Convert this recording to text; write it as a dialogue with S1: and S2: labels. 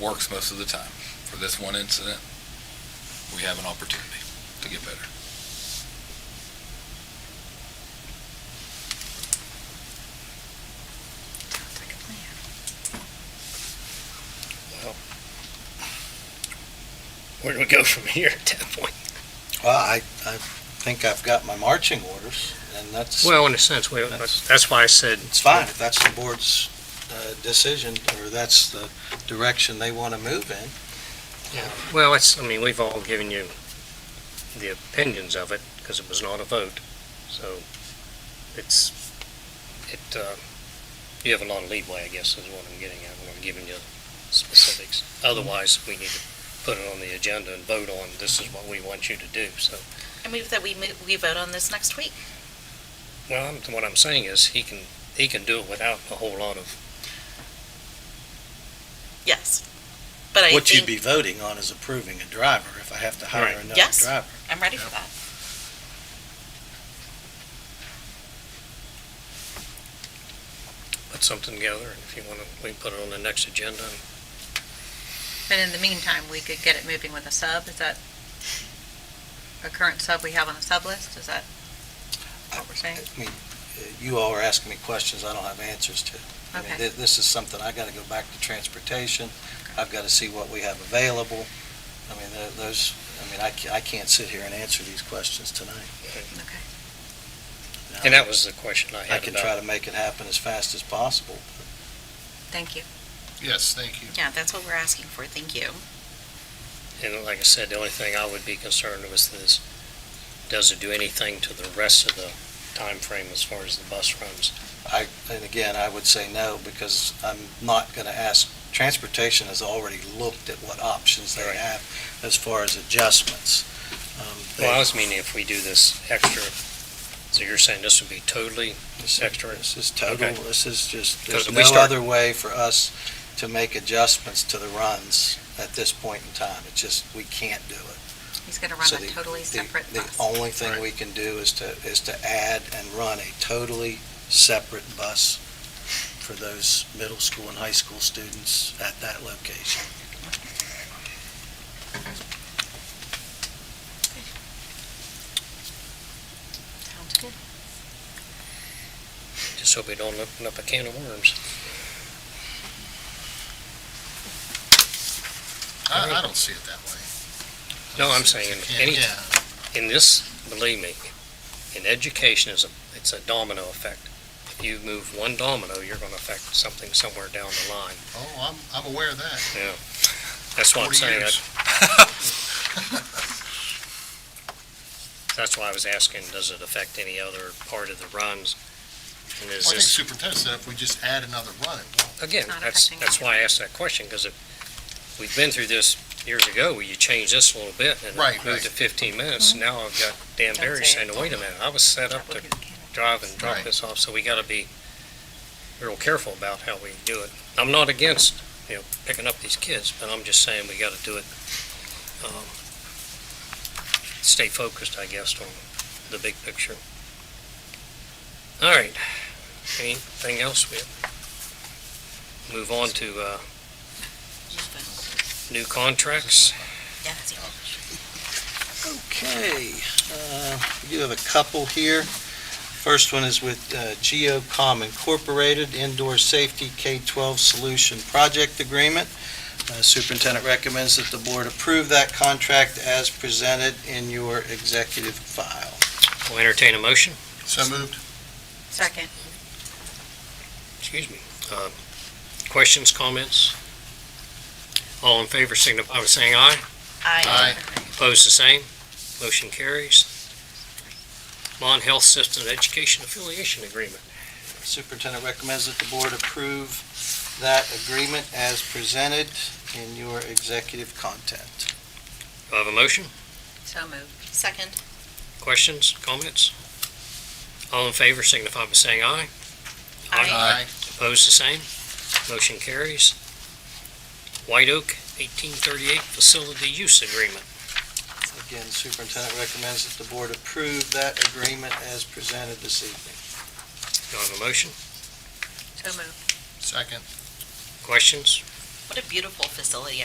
S1: works most of the time. For this one incident, we have an opportunity to get better.
S2: Where do we go from here at that point?
S3: Well, I, I think I've got my marching orders, and that's,
S2: Well, in a sense, we,
S3: That's-
S2: that's why I said.
S3: it's fine, if that's the board's uh, decision, or that's the direction they want to move in.
S2: Well, it's, I mean, we've all given you the opinions of it, because it was not a vote, so it's, it, uh, you have a lot of leeway, I guess, is what I'm getting at, I'm not giving you specifics. Otherwise, we need to put it on the agenda and vote on, this is what we want you to do, so.
S4: I move that we, mo- we vote on this next week.
S2: Well, I'm- what I'm saying is, he can, he can do it without a whole lot of,
S4: Yes. But I
S3: What you'd be
S4: think,
S3: voting on is approving a driver, if I have to hire
S2: Right.
S3: another
S4: Yes.
S3: driver.
S4: I'm ready for that.
S2: put something together, and if you want to, we can put it on the next agenda, and
S5: But in the meantime, we could get it moving with a sub, is that a current sub we have on the sub list, is that what we're saying?
S3: I mean, uh, you all are asking me questions I don't have answers to. I mean,
S5: Okay.
S3: thi- This is something, I got to go back to transportation, I've got to see what we have available. I mean, tho- those, I mean, I ca- I can't sit here and answer these questions tonight.
S5: Okay.
S2: And that was the question I
S3: I
S2: had
S3: can try
S2: about,
S3: to make it happen as fast as possible.
S5: Thank you.
S6: Yes, thank you.
S4: Yeah, that's what we're asking for. Thank you.
S2: and like I said, the only thing I would be concerned with is, does it do anything to the rest of the time frame as far as the bus runs?
S3: I, and again, I would say no, because I'm not going to ask, transportation has already looked at what options they
S2: Right.
S3: have as far as adjustments. Um, they-
S2: Well, I was meaning if we do this extra, so you're saying this would be totally
S3: This is-
S2: extra?
S3: This is total,
S2: Okay.
S3: this is just,
S2: Because
S3: there's
S2: we
S3: no
S2: start-
S3: other way for us to make adjustments to the runs at this point in time. It's just, we can't do it.
S5: He's gonna run
S3: So
S5: a
S3: the-
S5: totally
S3: the-
S5: separate
S3: The
S5: bus.
S3: only thing we can do is to, is to add and run a totally separate bus for those middle school and high school students at that location.
S4: Sounds good.
S2: Just hope we don't open up a can of worms.
S6: I, I don't see it that way.
S2: No, I'm
S6: See,
S2: saying
S6: you can't-
S2: any,
S6: yeah.
S2: in this, believe me, in education is a, it's a domino effect. If you move one domino, you're going to affect something somewhere down the line.
S6: Oh, I'm, I'm aware of that.
S2: That's what I'm
S6: 40
S2: saying. I-
S6: years.
S2: That's why I was asking, does it affect any other part of the runs? And
S6: I
S2: is
S6: think
S2: this,
S6: superintendent said if we just add another run, it won't.
S2: again,
S5: It's not
S2: that's,
S5: affecting
S2: that's why I asked that question, because if, we've been through this years ago, where you changed this a little bit and
S6: Right,
S2: it moved to fifteen minutes, now I've got Dan
S5: Mm-hmm. Don't
S2: Barry
S5: say
S2: saying,
S5: it.
S2: wait a minute, I was set up to drive and drop
S6: Right.
S2: this off, so we gotta be real careful about how we do it. I'm not against, you know, picking up these kids, but I'm just saying we gotta do it, um, stay focused, I guess, on the big picture. All right, anything else? We move on to, uh, new contracts.
S4: Yes, yeah.
S3: Okay, uh, we do have a couple here. First one is with uh, Geocom Incorporated Indoor Safety K-12 Solution Project Agreement. Uh, Superintendent recommends that the board approve that contract as presented in your executive file.
S2: We'll entertain a motion.
S6: So moved.
S5: Second.
S2: excuse me, uh, questions, comments? All in favor signify by saying aye.
S6: Aye.
S2: Opposed, the same. Motion carries. Mon Health System Education Affiliation Agreement.
S3: Superintendent recommends that the board approve that agreement as presented in your executive content.
S2: Do I have a motion?
S5: So moved.
S4: Second.
S2: Questions, comments? All in favor signify by saying aye.
S6: Aye.
S2: Opposed, the same. Motion carries. White Oak 1838 Facility Use Agreement.
S3: Again, superintendent recommends that the board approve that agreement as presented this evening.
S2: Do I have a motion?
S5: So moved.
S6: Second.
S2: Questions,
S5: What a beautiful facility